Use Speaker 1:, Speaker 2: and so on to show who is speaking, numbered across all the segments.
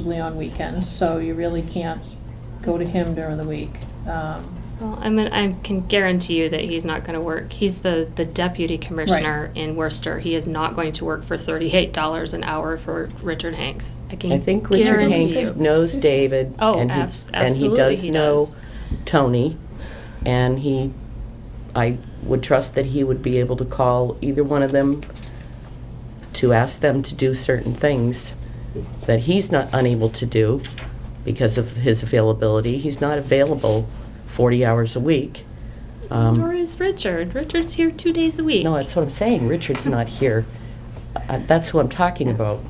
Speaker 1: exclusively on weekends, so you really can't go to him during the week. Um,
Speaker 2: Well, I mean, I can guarantee you that he's not going to work. He's the, the deputy commissioner in Worcester. He is not going to work for thirty-eight dollars an hour for Richard Hanks. I can
Speaker 3: I think Richard
Speaker 2: guarantee
Speaker 3: Hanks
Speaker 2: you.
Speaker 3: knows David.
Speaker 2: Oh,
Speaker 3: and he-
Speaker 2: abs-
Speaker 3: And he
Speaker 2: absolutely
Speaker 3: does
Speaker 2: he
Speaker 3: know
Speaker 2: does.
Speaker 3: Tony, and he, I would trust that he would be able to call either one of them to ask them to do certain things that he's not unable to do because of his availability. He's not available 40 hours a week. Um,
Speaker 2: Nor is Richard. Richard's here two days a week.
Speaker 3: No, that's what I'm saying, Richard's not here. Uh, That's who I'm talking about.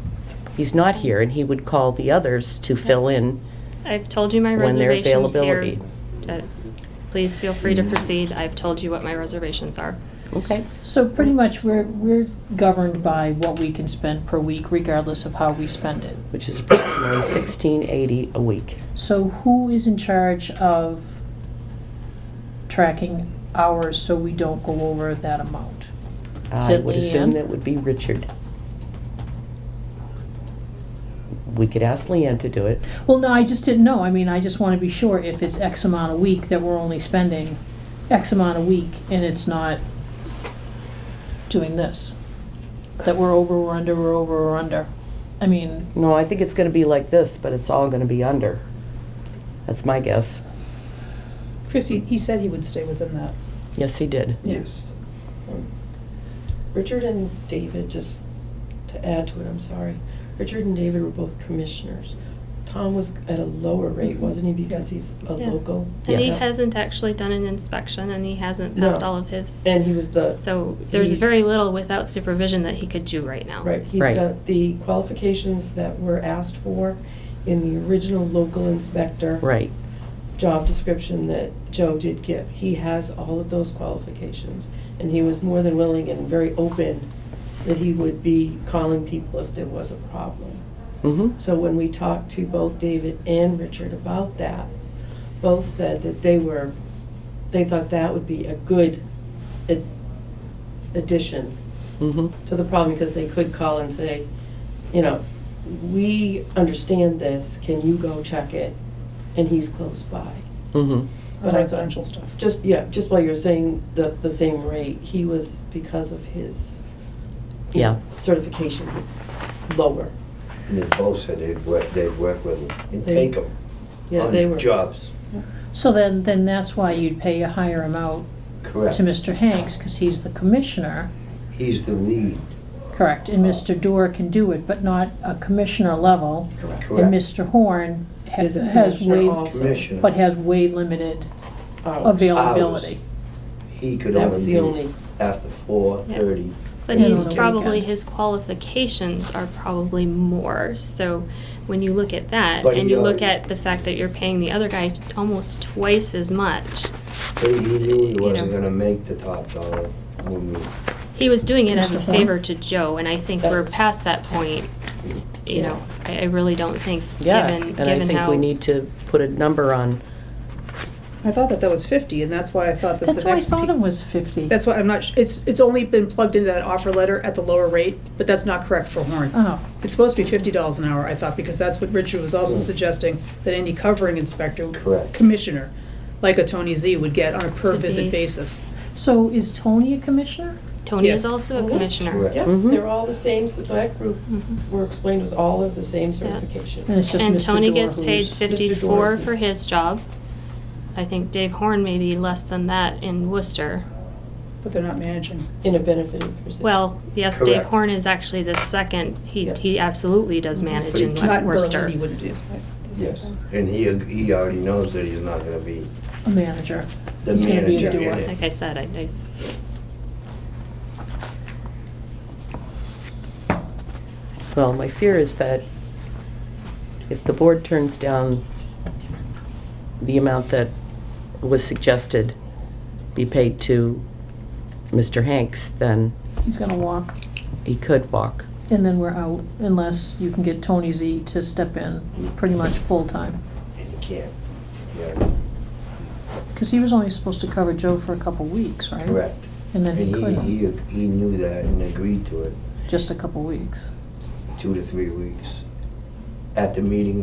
Speaker 3: He's not here, and he would call the others to fill in
Speaker 2: I've told you my
Speaker 3: when their
Speaker 2: reservations here.
Speaker 3: availability.
Speaker 2: Uh, Please feel free to proceed. I've told you what my reservations are.
Speaker 3: Okay.
Speaker 1: So pretty much, we're, we're governed by what we can spend per week regardless of how we spend it.
Speaker 3: Which is approximately sixteen eighty a week.
Speaker 1: So who is in charge of tracking hours so we don't go over that amount?
Speaker 3: I
Speaker 1: it
Speaker 3: would assume
Speaker 1: Leanne?
Speaker 3: that would be Richard. We could ask Leanne to do it.
Speaker 1: Well, no, I just didn't know. I mean, I just want to be sure if it's X amount a week that we're only spending X amount a week and it's not doing this. That we're over or under or over or under. I mean,
Speaker 3: No, I think it's gonna be like this, but it's all gonna be under. That's my guess.
Speaker 4: Chris, he, he said he would stay within that.
Speaker 3: Yes, he did.
Speaker 5: Yes.
Speaker 6: Richard and David, just to add to it, I'm sorry, Richard and David were both commissioners. Tom was at a lower rate, wasn't he, because he's a
Speaker 2: Mm-hmm. Yeah.
Speaker 6: local?
Speaker 2: And he
Speaker 3: Yes.
Speaker 2: hasn't actually done an inspection and he hasn't passed
Speaker 6: No.
Speaker 2: all of his.
Speaker 6: And he was the.
Speaker 2: So there's
Speaker 6: he's-
Speaker 2: very little without supervision that he could do right now.
Speaker 6: Right, he's
Speaker 3: Right.
Speaker 6: got the qualifications that were asked for in the original local inspector.
Speaker 3: Right.
Speaker 6: Job description that Joe did give. He has all of those qualifications, and he was more than willing and very open that he would be calling people if there was a problem.
Speaker 3: Mm-hmm.
Speaker 6: So when we talked to both David and Richard about that, both said that they were, they thought that would be a good ad- addition
Speaker 3: Mm-hmm.
Speaker 6: to the problem because they could call and say, you know, we understand this, can you go check it? And he's close by.
Speaker 3: Mm-hmm.
Speaker 4: The
Speaker 6: But I-
Speaker 4: residential stuff.
Speaker 6: Just, yeah, just while you're saying the, the same rate, he was, because of his you know, certification was lower.
Speaker 5: And they both said they'd work, they'd work with them and
Speaker 6: They-
Speaker 5: take them
Speaker 6: Yeah, they were.
Speaker 5: on jobs.
Speaker 1: so then, then that's why you'd pay a higher amount
Speaker 5: Correct.
Speaker 1: to Mr. Hanks because he's the commissioner,
Speaker 5: He's the lead.
Speaker 1: correct?
Speaker 6: Uh-huh.
Speaker 1: And Mr. Dorr can do it, but not a commissioner level.
Speaker 6: Correct.
Speaker 1: And
Speaker 5: Correct.
Speaker 1: Mr. Horn ha-
Speaker 6: Is a
Speaker 1: has
Speaker 6: commissioner
Speaker 1: way,
Speaker 6: also.
Speaker 5: Commissioner.
Speaker 1: but has way limited
Speaker 6: Hours.
Speaker 1: availability.
Speaker 5: He could
Speaker 6: That was
Speaker 5: only
Speaker 6: the only,
Speaker 5: do after four
Speaker 2: Yeah.
Speaker 5: thirty.
Speaker 2: But
Speaker 1: Yeah,
Speaker 2: he's
Speaker 1: on the
Speaker 2: probably,
Speaker 1: weekend.
Speaker 2: his qualifications are probably more, so when you look at that,
Speaker 5: But
Speaker 2: and
Speaker 5: he
Speaker 2: you look
Speaker 5: already-
Speaker 2: at the fact that you're paying the other guy almost twice as much,
Speaker 5: He knew he
Speaker 2: You
Speaker 5: wasn't
Speaker 2: know.
Speaker 5: gonna make the top dollar when we,
Speaker 2: he was doing it as
Speaker 1: Mr.
Speaker 2: a
Speaker 1: Thorne?
Speaker 2: favor to Joe, and I think we're
Speaker 6: That's-
Speaker 2: past that point, you
Speaker 6: Yeah.
Speaker 2: know, I, I really don't think,
Speaker 3: Yeah,
Speaker 2: given, given how.
Speaker 3: and I think we need to put a number on,
Speaker 4: I thought that that was fifty, and that's why I thought that the next.
Speaker 1: That's why I thought
Speaker 4: pe-
Speaker 1: it was fifty.
Speaker 4: That's why I'm not, sh- it's, it's only been plugged into that offer letter at the lower rate, but that's not correct for Horn.
Speaker 1: Oh,
Speaker 4: It's supposed to be fifty dollars an hour, I thought, because that's what Richard was also
Speaker 5: Mm.
Speaker 4: suggesting, that any covering inspector.
Speaker 5: Correct.
Speaker 4: Commissioner, like a Tony Z would get on a per
Speaker 2: Mhm.
Speaker 4: visit basis.
Speaker 1: so is Tony a commissioner?
Speaker 2: Tony is
Speaker 4: Yes.
Speaker 2: also a
Speaker 6: Mhm.
Speaker 2: commissioner.
Speaker 5: Correct.
Speaker 6: yeah,
Speaker 3: Mhm.
Speaker 6: they're all the same, so that group
Speaker 2: Mhm.
Speaker 6: were explained was all of the same certification.
Speaker 1: And it's just
Speaker 2: And
Speaker 1: Mr.
Speaker 2: Tony
Speaker 1: Dorr
Speaker 2: gets
Speaker 1: who's-
Speaker 2: paid fifty-four
Speaker 6: Dorsey.
Speaker 2: for his job. I think Dave Horn may be less than that in Worcester.
Speaker 4: But they're not managing.
Speaker 6: In a benefited position.
Speaker 2: Well, yes, Dave
Speaker 5: Correct.
Speaker 2: Horn is actually the second, he,
Speaker 6: Yeah.
Speaker 2: he absolutely does manage
Speaker 5: But he
Speaker 2: in
Speaker 5: can't-
Speaker 4: Not in
Speaker 2: Worcester.
Speaker 4: Berlin, he wouldn't do.
Speaker 5: yes. And he, he already knows that he's not gonna be
Speaker 1: A manager.
Speaker 5: the
Speaker 1: He's gonna be a
Speaker 5: manager in
Speaker 1: doer.
Speaker 5: it.
Speaker 2: Like I said, I, I,
Speaker 3: well, my fear is that if the board turns down the amount that was suggested be paid to Mr. Hanks, then
Speaker 1: He's gonna walk,
Speaker 3: he could walk.
Speaker 1: and then we're out unless you can get Tony Z to step in pretty much full-time.
Speaker 5: And he can't. Yeah,
Speaker 1: Because he was only supposed to cover Joe for a couple weeks, right?
Speaker 5: Correct.
Speaker 1: And then
Speaker 5: And
Speaker 1: he
Speaker 5: he,
Speaker 1: couldn't,
Speaker 5: he, he knew that and agreed to it,
Speaker 1: just a couple weeks.
Speaker 5: two to three weeks. At the meeting